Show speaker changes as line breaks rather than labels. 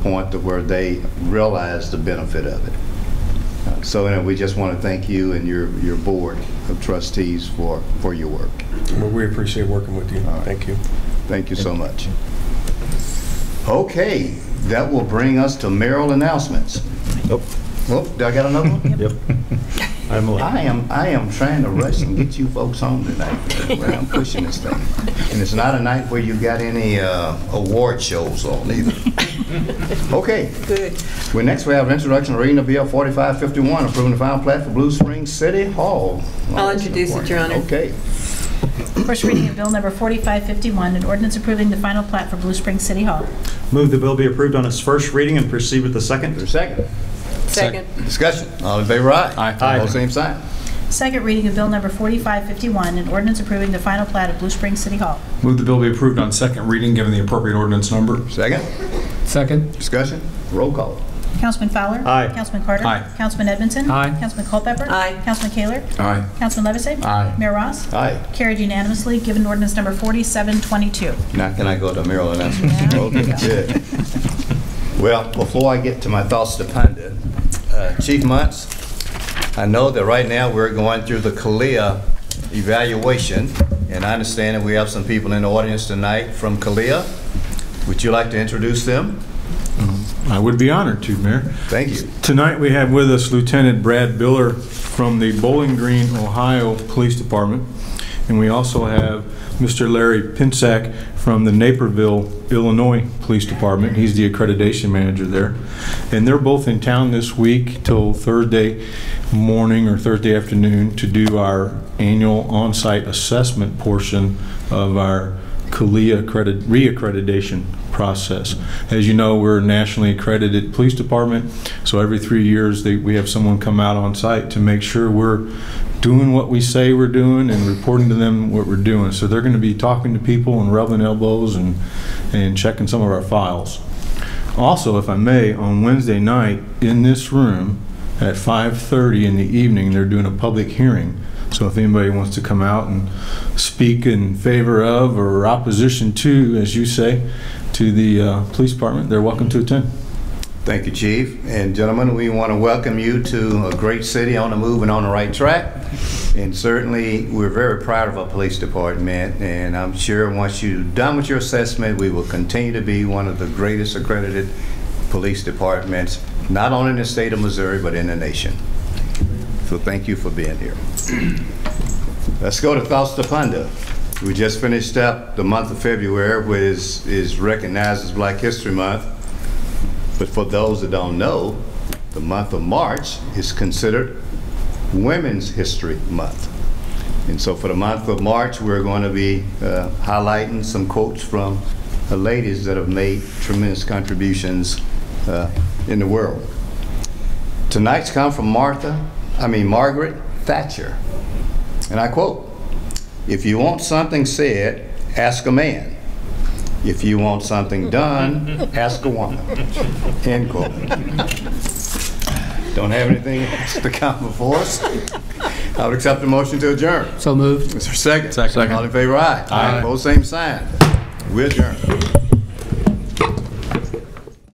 point to where they realize the benefit of it. Uh, So anyway, we just want to thank you and your, your board of trustees for, for your work.
Well, we appreciate working with you.
right.
Thank you.
Thank you so much. Okay, that will bring us to mayoral announcements.
Nope.
Oh, do I got another one?
Yep. I'm late.
I am, I am trying to rush and get you folks home tonight. Well, I'm pushing this thing. And it's not a night where you got any uh, award shows on either. Okay,
Good.
Well, next we have introduction reading of Bill 4551, approving the final plat for Blue Springs City Hall.
I'll introduce it, Your Honor.
Okay.
First reading of Bill Number 4551, an ordinance approving the final plat for Blue Springs City Hall.
Move the bill be approved on its first reading and proceed with the second.
There's a second.
Second.
Discussion. All in favor, aye.
Aye.
All same sign.
Second reading of Bill Number 4551, an ordinance approving the final plat of Blue Springs City Hall.
Move the bill be approved on second reading, given the appropriate ordinance number.
Second.
Second.
Discussion. Roll call.
Councilman Fowler?
Aye.
Councilman Carter?
Aye.
Councilman Edmondson?
Aye.
Councilman Culpepper?
Aye.
Councilman Kaler?
Aye.
Councilman Levisay?
Aye.
Mayor Ross?
Aye.
Carried unanimously, given ordinance Number 4722.
Now can I go to Maryland announcement?
Yeah.
Okay, good. Well, before I get to my thoughts to ponder, uh, Chief Muntz, I know that right now we're going through the Kalia evaluation, and I understand that we have some people in the audience tonight from Kalia. Would you like to introduce them?
I would be honored to, Mayor.
Thank you.
Tonight, we have with us Lieutenant Brad Biller from the Bowling Green, Ohio Police Department. And we also have Mr. Larry Pinsack from the Naperville, Illinois Police Department. He's the accreditation manager there. And they're both in town this week till Thursday morning or Thursday afternoon to do our annual on-site assessment portion of our CALIA accredit- reaccreditation process. As you know, we're a nationally accredited police department, so every three years, they- we have someone come out on site to make sure we're doing what we say we're doing and reporting to them what we're doing. So they're going to be talking to people and rubbing elbows and and checking some of our files. Also, if I may, on Wednesday night, in this room, at 5:30 in the evening, they're doing a public hearing. So if anybody wants to come out and speak in favor of or opposition to, as you say, to the uh, police department, they're welcome to attend.
Thank you, Chief. And gentlemen, we want to welcome you to a great city on the move and on the right track. And certainly, we're very proud of our police department, and I'm sure once you're done with your assessment, we will continue to be one of the greatest accredited police departments, not only in the state of Missouri, but in the nation. So thank you for being here. Let's go to Thoughts to Ponder. We just finished up the month of February, which is- is recognized as Black History Month. But for those that don't know, the month of March is considered Women's History Month. And so for the month of March, we're going to be uh, highlighting some quotes from the ladies that have made tremendous contributions uh, in the world. Tonight's come from Martha, I mean Margaret Thatcher. And I quote, "If you want something said, ask a man. If you want something done, ask a woman." End quote. Don't have anything else to come before us. I would accept the motion to adjourn.
So moved.
Is there a second?
Second.
All in favor, aye.
Aye.
Both same sign. We adjourn.